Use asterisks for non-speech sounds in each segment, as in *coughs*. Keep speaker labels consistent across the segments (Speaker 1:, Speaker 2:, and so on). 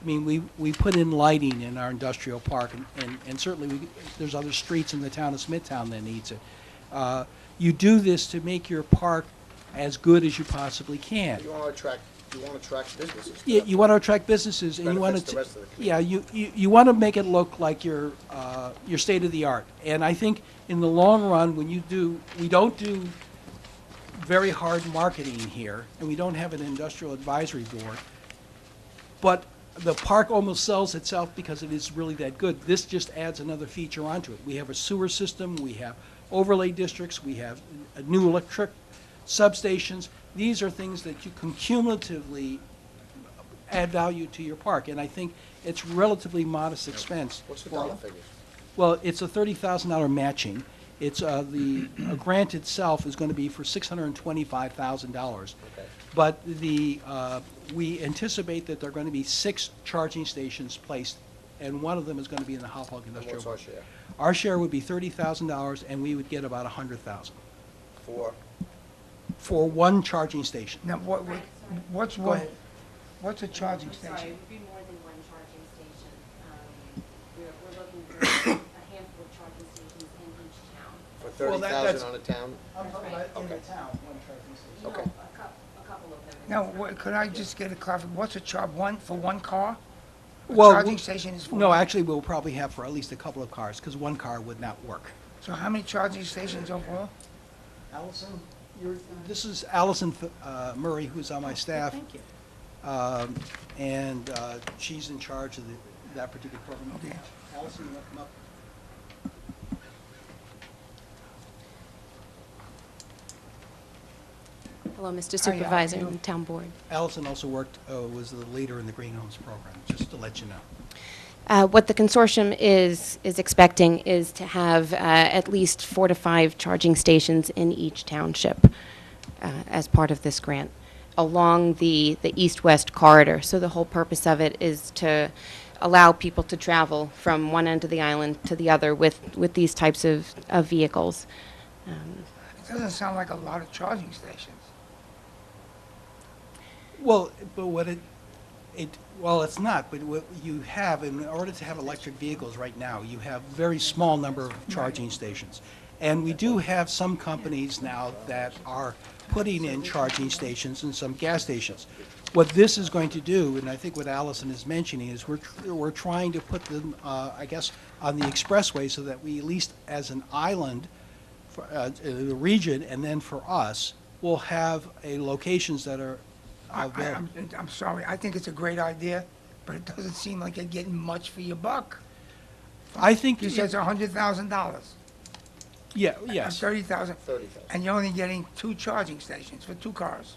Speaker 1: I mean, we, we put in lighting in our industrial park, and- and, and certainly, we, there's other streets in the town of Smithtown that needs it. Uh, You do this to make your park as good as you possibly can.
Speaker 2: You want to attract, you want to attract businesses. to
Speaker 1: You,
Speaker 2: that.
Speaker 1: you want to attract businesses, and you want
Speaker 2: Benefits
Speaker 1: to.
Speaker 2: the rest of the community.
Speaker 1: Yeah, you, you, you want to make it look like you're, uh, you're state of the art. And I think in the long run, when you do, we don't do very hard marketing here, and we don't have an industrial advisory board. But the park almost sells itself because it is really that good. This just adds another feature onto it. We have a sewer system, we have overlay districts, we have uh, new electric substations. These are things that you can cumulatively add value to your park, and I think it's relatively modest expense.
Speaker 2: What's the
Speaker 1: for-
Speaker 2: dollar figure?
Speaker 1: Well, it's a thirty thousand dollar matching. It's, uh, the uh, grant itself is gonna be for six hundred and twenty-five thousand dollars.
Speaker 2: Okay.
Speaker 1: But the, uh, we anticipate that there are gonna be six charging stations placed, and one of them is gonna be in the Hopog
Speaker 2: And
Speaker 1: Industrial.
Speaker 2: what's our
Speaker 1: Park.
Speaker 2: share?
Speaker 1: Our share would be thirty thousand dollars, and we would get about a hundred thousand
Speaker 2: For,
Speaker 1: for one charging station.
Speaker 3: Now, what, what- what's
Speaker 1: Go
Speaker 3: one,
Speaker 1: ahead.
Speaker 3: what's a charging
Speaker 4: I'm Sorry,
Speaker 3: station?
Speaker 4: it would be more than one charging station. Um, We're, we're looking for *coughs* a handful of charging stations in each town.
Speaker 2: for
Speaker 1: Well,
Speaker 2: thirty
Speaker 1: that-
Speaker 2: thousand
Speaker 1: that's-
Speaker 2: on a town?
Speaker 3: Now,
Speaker 2: Okay.
Speaker 4: No,
Speaker 2: Okay.
Speaker 4: A cou- a couple of them.
Speaker 3: what, could I just get a clarification, what's a char, one, for one car? A
Speaker 1: Well,
Speaker 3: Charging
Speaker 1: w-
Speaker 3: station is for?
Speaker 1: No,
Speaker 3: one-
Speaker 1: actually, we'll probably have for at least a couple of cars, because one car would not work.
Speaker 3: So how many charging stations overall?
Speaker 1: Allison, you're, this is Allison uh, Murray, who's on my staff. Thank you. Um, and, uh, she's in charge of the, that particular program.
Speaker 3: Okay.
Speaker 1: Allison, you wanna come up?
Speaker 5: Hello, Mr.
Speaker 3: Hi, how are
Speaker 5: Supervisor
Speaker 3: you?
Speaker 5: and Town Board.
Speaker 1: Allison also worked, uh, was the leader in the Green Homes program, just to let you know.
Speaker 5: Uh, What the consortium is, is expecting is to have uh, at least four to five charging stations in each township uh, as part of this grant, along the, the east-west corridor. So the whole purpose of it is to allow people to travel from one end of the island to the other with, with these types of, of vehicles. Um,
Speaker 3: It doesn't sound like a lot of charging stations.
Speaker 1: Well, but what it, it, well, it's not, but what you have, in order to have electric vehicles right now, you have very small number of charging stations. And we do have some companies now that are putting in charging stations and some gas stations. What this is going to do, and I think what Allison is mentioning, is we're, tr- we're trying to put them, uh, I guess, on the expressway so that we, at least as an island, for, uh, the region, and then for us, will have a locations that are
Speaker 3: I, I,
Speaker 1: available.
Speaker 3: I'm, I'm sorry, I think it's a great idea, but it doesn't seem like you're getting much for your buck.
Speaker 1: I think,
Speaker 3: You said it's a hundred thousand dollars.
Speaker 1: yeah, yes,
Speaker 3: Thirty thousand,
Speaker 2: Thirty thousand.
Speaker 3: and you're only getting two charging stations for two cars.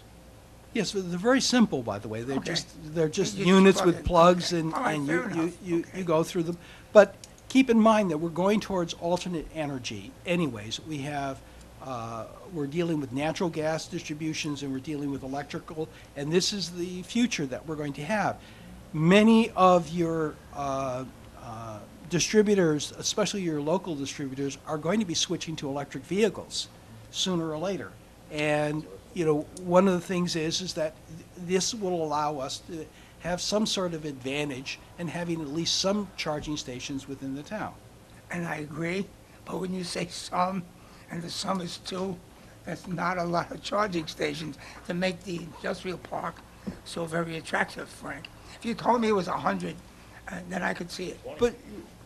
Speaker 1: yes, they're very simple, by the way, they're
Speaker 3: Okay.
Speaker 1: just, they're just
Speaker 3: You just
Speaker 1: units
Speaker 3: plug
Speaker 1: with
Speaker 3: it.
Speaker 1: plugs
Speaker 3: Okay.
Speaker 1: and,
Speaker 3: All right,
Speaker 1: and
Speaker 3: fair
Speaker 1: you,
Speaker 3: enough.
Speaker 1: you, you,
Speaker 3: Okay.
Speaker 1: you go through them. But keep in mind that we're going towards alternate energy anyways, we have, uh, we're dealing with natural gas distributions and we're dealing with electrical, and this is the future that we're going to have. Many of your, uh, uh, distributors, especially your local distributors, are going to be switching to electric vehicles sooner or later. And, you know, one of the things is, is that th- this will allow us to have some sort of advantage in having at least some charging stations within the town.
Speaker 3: and I agree, but when you say some, and the sum is two, that's not a lot of charging stations to make the industrial park so very attractive, Frank. If you told me it was a hundred, uh, then I could see it.
Speaker 1: But,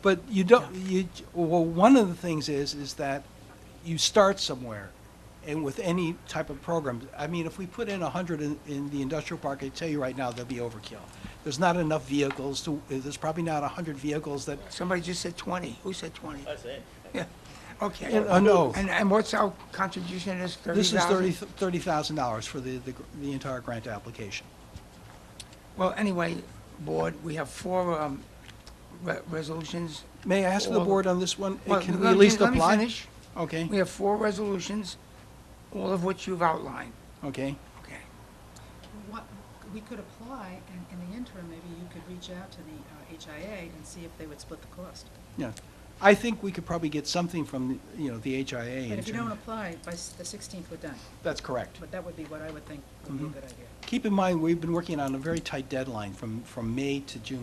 Speaker 1: but you don't, you, well, one of the things is, is that you start somewhere, and with any type of program, I mean, if we put in a hundred in, in the industrial park, I tell you right now, there'll be overkill. There's not enough vehicles to, there's probably not a hundred vehicles that,
Speaker 3: Somebody just said twenty, who said twenty?
Speaker 6: That's it.
Speaker 3: Yeah, okay.
Speaker 1: Yeah, uh, no.
Speaker 3: And, and what's our contribution is thirty
Speaker 1: this
Speaker 3: thousand?
Speaker 1: is thirty, thirty thousand dollars for the, the, gr- the entire grant application.
Speaker 3: Well, anyway, board, we have four, um, re- resolutions.
Speaker 1: May I ask the
Speaker 3: Well-
Speaker 1: board on this one, uh,
Speaker 3: Well,
Speaker 1: can we
Speaker 3: let
Speaker 1: at
Speaker 3: me-
Speaker 1: least
Speaker 3: let me
Speaker 1: apply?
Speaker 3: finish.
Speaker 1: Okay,
Speaker 3: We have four resolutions, all of which you've outlined,
Speaker 1: okay.
Speaker 3: okay?
Speaker 7: What, we could apply, and in the interim, maybe you could reach out to the uh, HIA and see if they would split the cost.
Speaker 1: Yeah, I think we could probably get something from, the you know, the HIA.
Speaker 7: But
Speaker 1: in
Speaker 7: if you don't
Speaker 1: terms-
Speaker 7: apply, by s- the 16th, we're done.
Speaker 1: That's correct.
Speaker 7: But that would be what I would think would be a good idea.
Speaker 1: Keep in mind, we've been working on a very tight deadline from, from May to June